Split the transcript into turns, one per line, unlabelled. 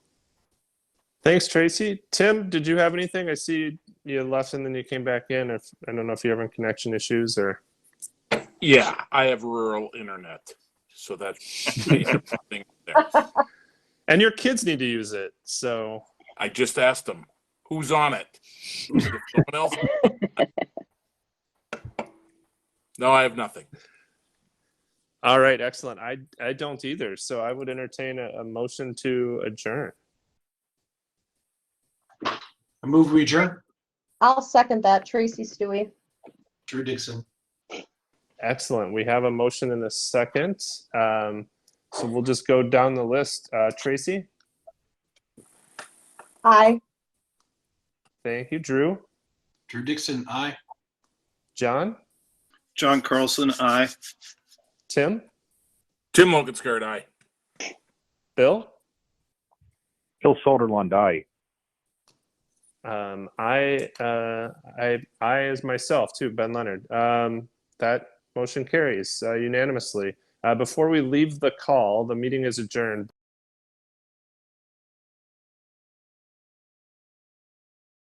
Thanks, Tracy. Tim, did you have anything? I see you left and then you came back in. If I don't know if you're having connection issues or
Yeah, I have rural internet, so that's the thing there.
and your kids need to use it. So
I just asked them, who's on it? If Someone else? No, I have nothing.
all right, excellent. I I don't either. So I would entertain a, a motion to adjourn.
I move we adjourn.
I'll second that. Tracy Stewie.
Drew Dixon.
Excellent. We have a motion in a second. Um, so we'll just go down the list. Uh, Tracy,
Aye.
thank you. Drew,
Drew Dixon, aye.
John,
John Carlson, aye.
Tim,
Tim Loganskirt, aye.
Bill.
Bill Soderlund, aye.
Um, I, uh, I, I as myself too, Ben Leonard. Um, that motion carries uh, unanimously. Uh, before we leave the call, the meeting is adjourned.